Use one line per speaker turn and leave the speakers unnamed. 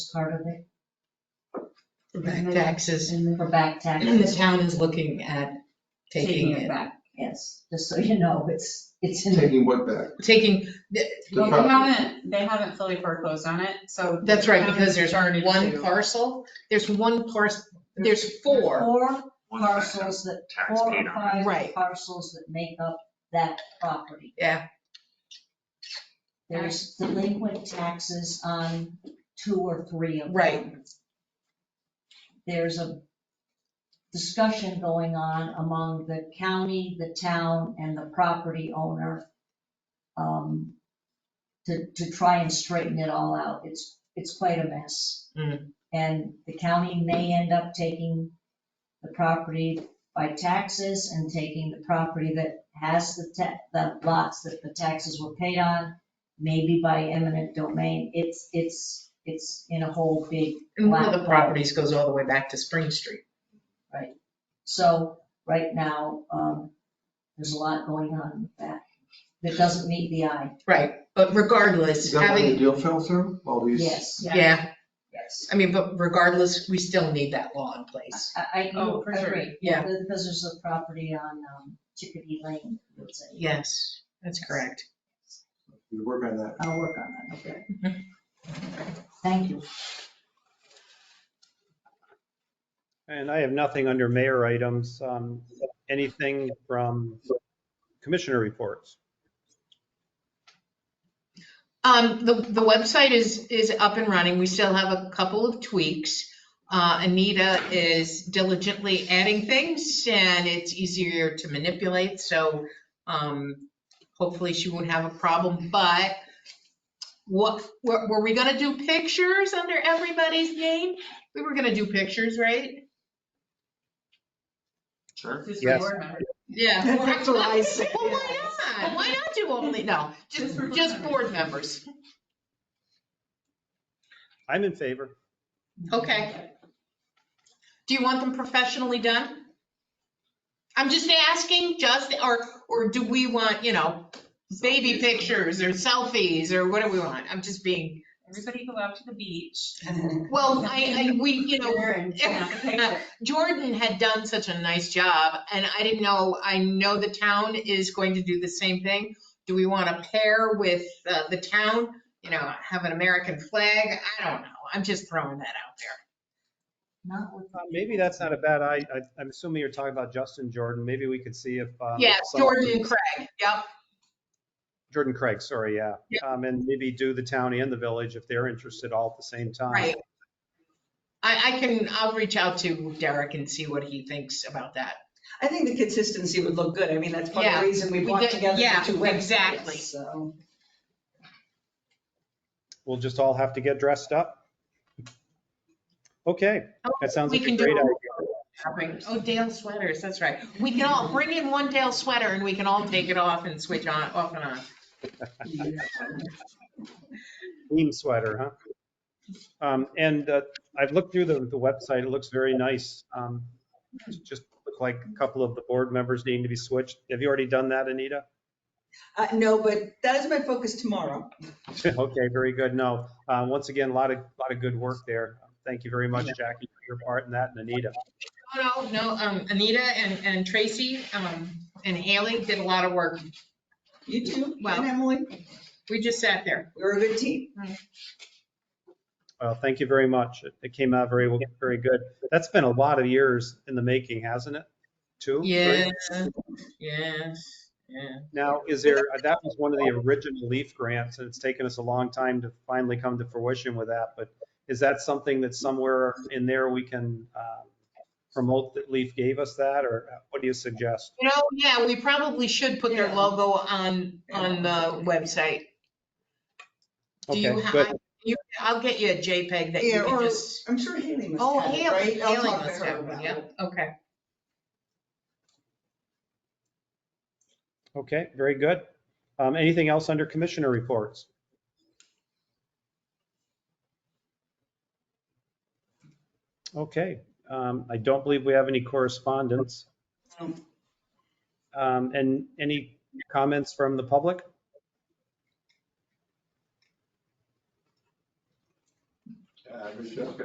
part of it?
for back taxes.
And For back
The
taxes,
town is looking at taking it,
back, yes, just so you know, it's, it's in the
Taking what back?
taking,
The
Well, they
property.
haven't, they haven't fully foreclosed on it, so.
that's right,
the
because there's
town started
one
to-
parcel, there's one parcel, there's four.
four
One tax
parcels that, four
paid
or
on it.
five
Right.
parcels that make up that property.
Yeah.
There's delinquent taxes on two or three of them.
Right.
There's a discussion going on among the county, the town, and the property owner um, to, to try and straighten it all out. It's, it's quite a mess.
Mm.
And the county may end up taking the property by taxes and taking the property that has the ta, the lots that the taxes were paid on, maybe by eminent domain. It's, it's, it's in a whole big,
And one of
Wow.
the properties goes all the way back to Spring Street.
so right now, um, there's a lot going on with that. That doesn't meet the eye,
Right, but
Is
regardless,
that why the
having,
deal fell through? All these?
yes,
yeah,
yes.
I mean, but regardless, we still need that law in place.
I, I
Oh, for sure.
agree.
Yeah.
Because there's a property on um, Chickadee Lane, that's it.
Yes, that's correct.
You work on that.
I'll work on that, okay. Thank you.
And I have nothing under mayor items, um, anything from commissioner reports.
Um, the, the website is, is up and running. We still have a couple of tweaks. Uh, Anita is diligently adding things and it's easier to manipulate, so, um, hopefully she won't have a problem, but what, were, were we gonna do pictures under everybody's name? We were gonna do pictures, right?
Sure.
Just
Yes.
board members.
Yeah.
That's what I said,
Well, why not? Why not do only, no, just,
Just for board
just
members.
board members.
I'm in favor.
Okay. Do you want them professionally done? I'm just asking, just, or, or do we want, you know, baby pictures or selfies or what do we want? I'm just being,
Everybody go out to the beach.
well, I, I, we, you know,
And snap a picture.
Jordan had done such a nice job, and I didn't know, I know the town is going to do the same thing. Do we want to pair with uh, the town, you know, have an American flag? I don't know, I'm just throwing that out there.
Not with,
Uh, Maybe that's not a bad, I, I- I'm assuming you're talking about Justin Jordan. Maybe we could see if. um,
Yeah,
some-
Jordan and Craig, yep,
Jordan Craig, sorry, yeah.
Yeah.
Um, and maybe do the town and the village if they're interested all at the same time.
right. I, I can, I'll reach out to Derek and see what he thinks about that.
I think the consistency would look good. I mean, that's part of
Yeah.
the reason we
We
brought
did-
together
yeah,
the two websites.
exactly.
So,
We'll just all have to get dressed up. Okay, that sounds
Oh, We
like
can
a
do
great
it.
idea.
Bring- Oh, Dale sweaters, that's right. We can all, bring in one Dale sweater and we can all take it off and switch on, off and on.
Team sweater, huh? Um, and uh, I've looked through the, the website, it looks very nice. Um, Just look like a couple of the board members needing to be switched. Have you already done that, Anita?
uh, no, but that is my focus tomorrow.
Okay, very good. No, uh, once again, a lot of, lot of good work there. Thank you very much, Jackie, for your part in that, and Anita.
No, no, no, um, Anita and, and Tracy, um, and Haley did a lot of work.
You too,
Wow.
and Emily,
We just sat there.
we're a good team.
Well, Uh, thank you very much. It- It came out very, well- very good. That's been a lot of years in the making, hasn't it? Two? three?
Yes, yes, yeah.
Now, is there, uh, that was one of the original LEAF grants, and it's taken us a long time to finally come to fruition with that, but is that something that somewhere in there we can uh, promote that LEAF gave us that, or uh, what do you suggest?
You know, yeah, we probably should put their
Yeah.
logo on, on the website. Do you
Okay,
have,
good.
you, I'll get you a JPEG that you
Yeah,
can
or-
just.
I'm sure Haley must
Oh,
have it, right?
Haley,
I'll
Haley
talk to
must
her
have
about
one,
it.
yeah, okay.
Okay, very good. Um, Anything else under commissioner reports? Okay, um, I don't believe we have any correspondence.
No.
Um, And any comments from the public?
Uh, Good job.